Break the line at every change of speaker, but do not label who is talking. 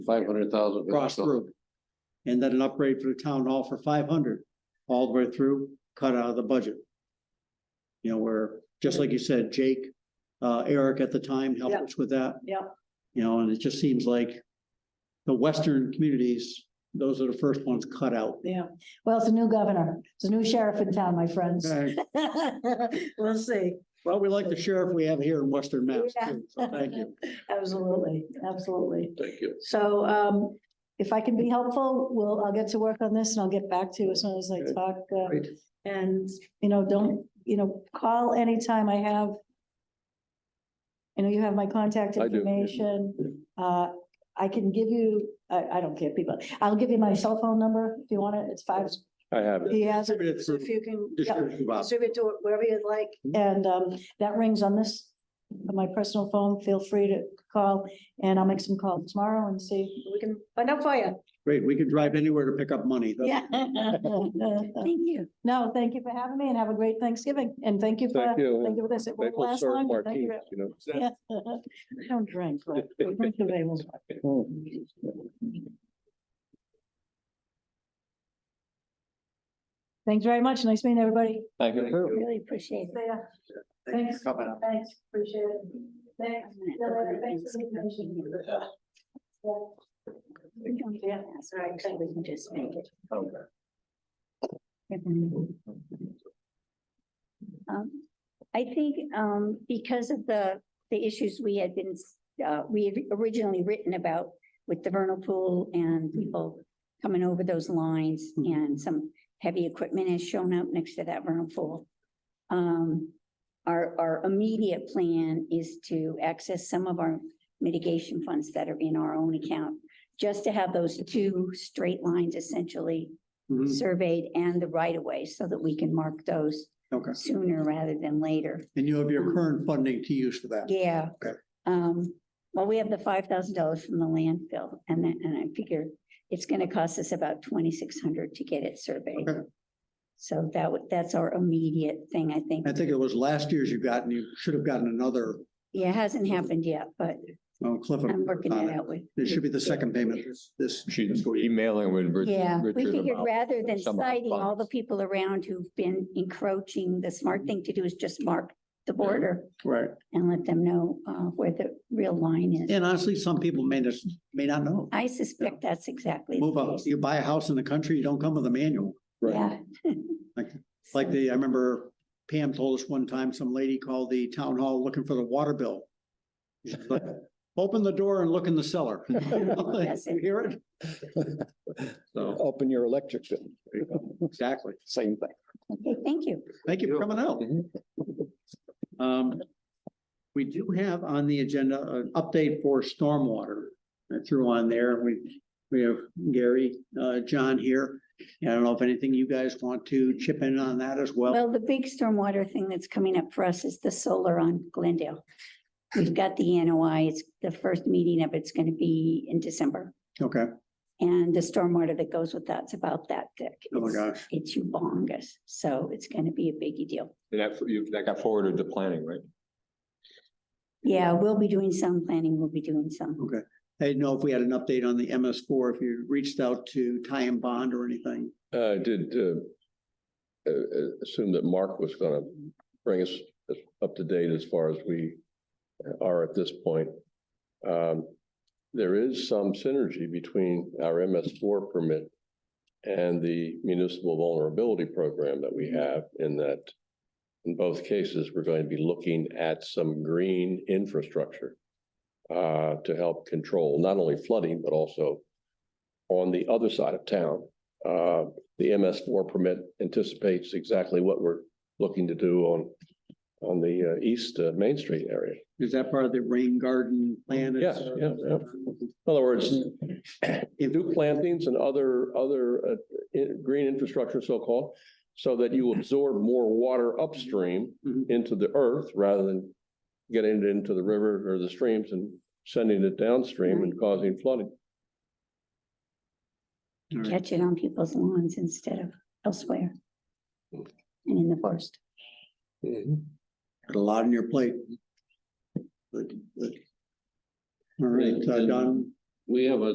Five hundred thousand.
cross through. And then an upgrade for the town hall for five hundred, all the way through, cut out of the budget. You know, where, just like you said, Jake, uh, Eric at the time helped
Yeah.
us with that.
Yeah.
You know, and it just seems like the western communities, those are the first ones cut out.
Yeah, well, it's a new governor, it's a new sheriff in town, my friends.
Okay.
We'll see,
Well, we like the sheriff we have here in Western Mass,
Yeah.
too, so thank you.
absolutely, absolutely.
Thank you.
So um, if I can be helpful, we'll, I'll get to work on this and I'll get back to you as soon as I
Okay.
talk. uh,
Great.
And, you know, don't, you know, call anytime I have. You know, you have my contact
I do, yeah.
information. Uh, I can give you, I, I don't give people, I'll give you my cell phone number if you want it, it's five,
I have it.
he has it,
Distribute it
so
through-
if you can. yeah.
Distributed box. Mm-hmm.
Distribute to it wherever you'd like, and um, that rings on this, on my personal phone, feel free to call, and I'll make some calls tomorrow and see, we can find out for you.
Great, we can drive anywhere to pick up money. That's-
Yeah. Thank you. No, thank you for having me, and have a great Thanksgiving, and thank you for,
Thank
thank
you. and
you for this, it won't
Thankful
last
Sir
long, but thank
Martinez,
you.
you know.
Yeah. I don't drink, but we're going to Vegas. Thanks very much, nice meeting everybody.
Thank you.
Really appreciate it. Thanks.
Coming up.
Thanks, appreciate it. Thanks. See you later. Thanks for the information. Yeah. Yeah, that's right. I think we can just make it.
Um, I think, um, because of the, the issues we had been, uh, we had originally written about with the vernal pool and people coming over those lines and some heavy equipment has shown up next to that vernal pool. Um, our, our immediate plan is to access some of our mitigation funds that are in our own account, just to have those two straight lines essentially
Mhm.
surveyed and the right of way so that we can mark those
Mm-hmm, Okay,
sooner rather than later.
and you have your current funding to use for that.
Yeah.
Okay.
Um, well, we have the five thousand dollars from the landfill and then, and I figure it's gonna cost us about twenty-six hundred to get it surveyed.
Okay.
So that would, that's our immediate thing, I think.
I think it was last year's you got, and you should have gotten another,
Yeah, it hasn't happened yet, but
oh, Cliff.
I'm working it out with.
It should be the second payment this- this.
She's emailing with. Rich-
Yeah, we
Richard
figured
about
rather than
some of the
citing all the
funds.
people around who've been encroaching, the smart thing to do is just mark the border
Right.
and let them know, uh, where the real line is.
And honestly, some people may just, may not know.
I suspect that's exactly. the
Move up,
case.
you buy a house in the country, you don't come with a manual.
Yeah.
Like- Like the, I remember Pam told us one time, some lady called the town hall looking for the water bill. She's like, Open the door and look in the cellar. You know,
That's
you
it.
Hear it? So,
Up in your electric bill,
exactly.
same thing.
Okay, thank you.
Thank you for coming out. Um, we do have on the agenda an update for stormwater. I threw on there, we, we have Gary, uh, John here. I don't know if anything you guys want to chip in on that as well.
Well, the big stormwater thing that's coming up for us is the solar on Glendale. We've got the NOI. It's the first meeting of it's going to be in December.
Okay,
And the stormwater that goes with that's about that thick.
oh my
It's-
gosh,
It's humongous. So it's going to be a biggie deal.
That, you, that got forwarded to planning, right?
Yeah, we'll be doing some planning. We'll be doing some.
okay. I didn't know if we had an update on the MS four, if you reached out to tie and bond or anything.
Uh, I did, uh, uh, uh, assume that Mark was gonna bring us up to date as far as we are at this point. Um, there is some synergy between our MS four permit and the municipal vulnerability program that we have in that in both cases, we're going to be looking at some green infrastructure uh, to help control not only flooding, but also on the other side of town, uh, the MS four permit anticipates exactly what we're looking to do on, on the, uh, east, uh, Main Street area.
Is that part of the rain garden plan?
Yes, yeah, yeah. In other words,
Mm-hmm.
new plantings and other, other, uh, i- green infrastructure so-called, so that you absorb more water upstream
Mhm.
into the earth rather than getting it into the river or the streams and sending it downstream and causing flooding.
All right.
Catch it on people's lawns instead of elsewhere.
Hmm.
And in the forest.
Got a lot on your plate. Good, good. All right, uh, Don.
We have a